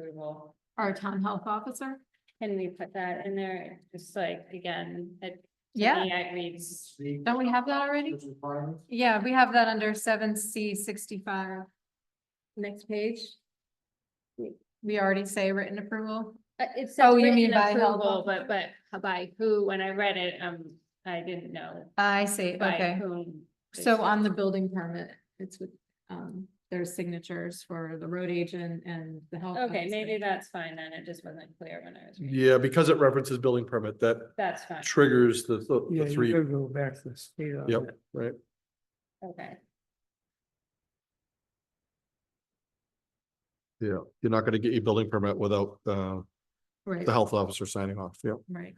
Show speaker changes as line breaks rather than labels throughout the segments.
approval.
Our town health officer?
Can we put that in there? Just like, again, it. to
Yeah,
me, It reads,
don't we have that already? Yeah, we have that under seven C sixty-five.
next page.
We already say written approval.
Uh, It says.
Oh, you
written
mean by health
approval, But, but by who, when I read it, um, I didn't know
I see,
by
okay.
whom.
So on the building permit, it's with, um, there's signatures for the road agent and the health.
Okay,
officer.
maybe that's fine then. It just wasn't clear when I was, reading.
Yeah, because it references building permit, that
that's fine,
triggers the, the-
Yeah,
the
you
three,
could go back to the state. on
Yep.
that.
right?
okay.
Yeah, you're not gonna get your building permit without, uh,
Right,
the health officer signing off, yeah.
right.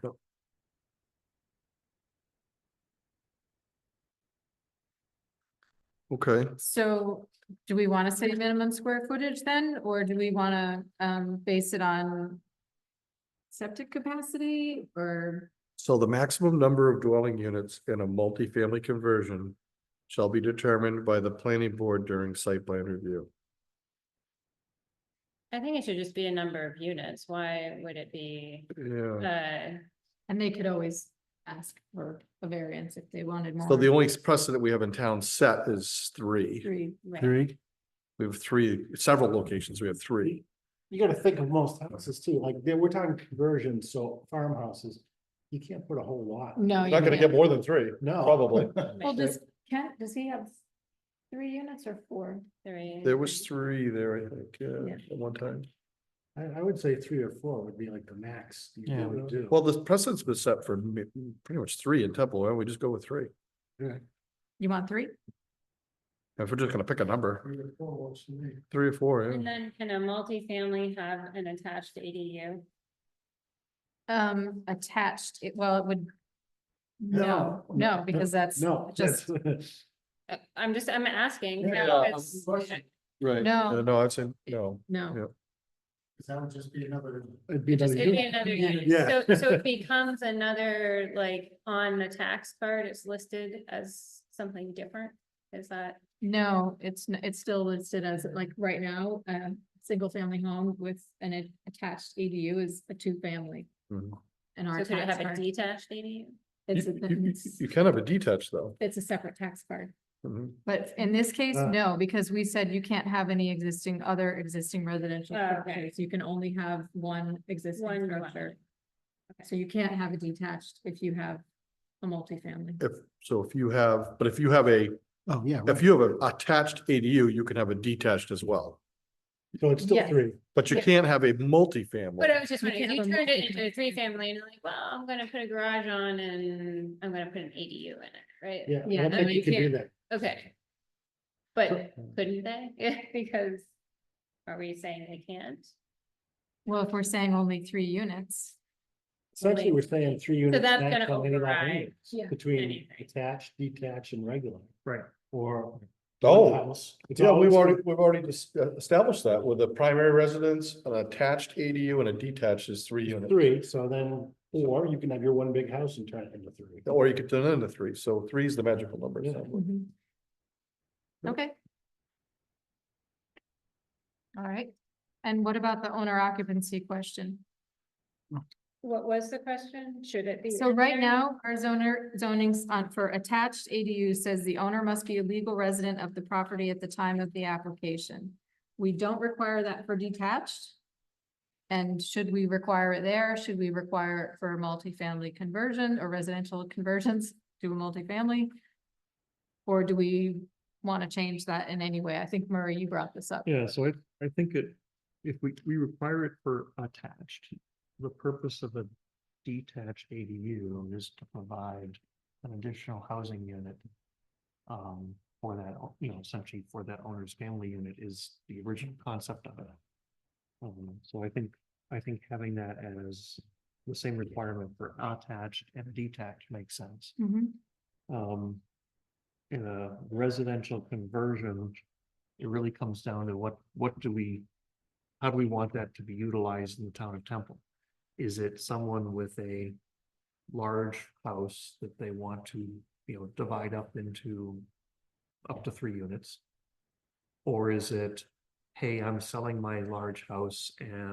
Okay,
So do we want to say minimum square footage then, or do we want to, um, base it on septic capacity or?
so the maximum number of dwelling units in a multifamily conversion shall be determined by the planning board during site plan review.
I think it should just be a number of units. Why would it be,
Yeah,
uh,
And they could always ask for a variance if they wanted more.
so the only precedent we have in town set is three.
Three,
right,
Three.
We have three, several locations, we have three.
You gotta think of most houses too, like, they- we're talking conversions, so farmhouses, you can't put a whole lot.
no. you
Not gonna
can't.
get more than three,
No.
probably.
Well, does Kent, does he have three units or four?
three.
There was three there, I think, yeah,
Yeah.
at one time.
I, I would say three or four would be like the max you
Yeah.
really do.
Well, this precedent's been set for mi- pretty much three in Temple, why don't we just go with three?
You want three?
If we're just gonna pick a number,
Three or four works for me.
three or four,
And
yeah.
then can a multifamily have an attached ADU?
Um, attached, it, well, it would. No,
No.
no, because that's
No.
just,
that's-
Uh, I'm just, I'm asking.
Yeah,
no,
yeah,
it's-
of course.
Right.
No.
No, I'd say, no, Yeah.
no,
That would just be another. It'd be another.
It'd be another unit.
Yeah.
So, so it becomes another, like, on the tax card, it's listed as something different? Is that,
no, it's, n- it's still listed as like right now, a single family home with an a- attached ADU is a two family.
Mhm.
And our
so could it
tax
have a
card,
detached ADU?
it's,
You- you- you-
a-
You can have a detached though.
it's a separate tax card.
Mhm.
But in this case,
Ah.
no, because we said you can't have any existing, other existing residential
Oh, Okay.
structures. You can only have one
One
existing
dwelling.
structure. So you can't have a detached if you have a multifamily.
If, so if you have, but if you have a,
Oh, yeah.
if
right.
you have an attached ADU, you can have a detached as well.
So it's still
Yes.
three.
But you
Yeah. uh,
can't have a
But I
multifamily.
was just
You
wondering, if
can't
you
have a
turned it into a
multifamily.
three family and you're like, well, I'm gonna put a garage on and I'm gonna put an ADU in it, right?
Yeah.
Yeah,
I
no,
think
you
you could do
can't.
that.
Okay. But couldn't they? Yeah, because are we saying they can't?
Well, if we're saying only three units.
Essentially, we're saying three units.
that's
max
gonna
on any lot
override
anyways,
Yeah.
Between
anything.
attached, detached and regular.
Right.
Or.
Oh,
house. It's
yeah, we've
always-
already, we've already dis- uh, established that with a primary residence, an attached ADU and a detached is three units.
Three, so then, or you can have your one big house and turn it into three.
Or you could turn it into three, so three is the magical number.
Yeah.
somewhere.
Mhm. Okay. All right. And what about the owner occupancy question?
What was the question? Should it be?
So
in
right
there?
now, our zoner, zonings on, for attached ADU says the owner must be a legal resident of the property at the time of the application. We don't require that for detached. And should we require it there? Should we require it for multifamily conversion or residential conversions to a multifamily? Or do we want to change that in any way? I think Murray, you brought this up.
Yeah, so I, I think it, if we, we require it for attached, the purpose of a detached ADU is to provide an additional housing unit. Um, for that, o- you know, essentially for that owner's family unit is the original concept of it. Um, so I think, I think having that as the same requirement for attached and detached makes sense
Mhm.
um, in a residential conversion, it really comes down to what, what do we, how do we want that to be utilized in the town of Temple? Is it someone with a large house that they want to, you know, divide up into up to three units? Or is it hey, I'm selling my large house and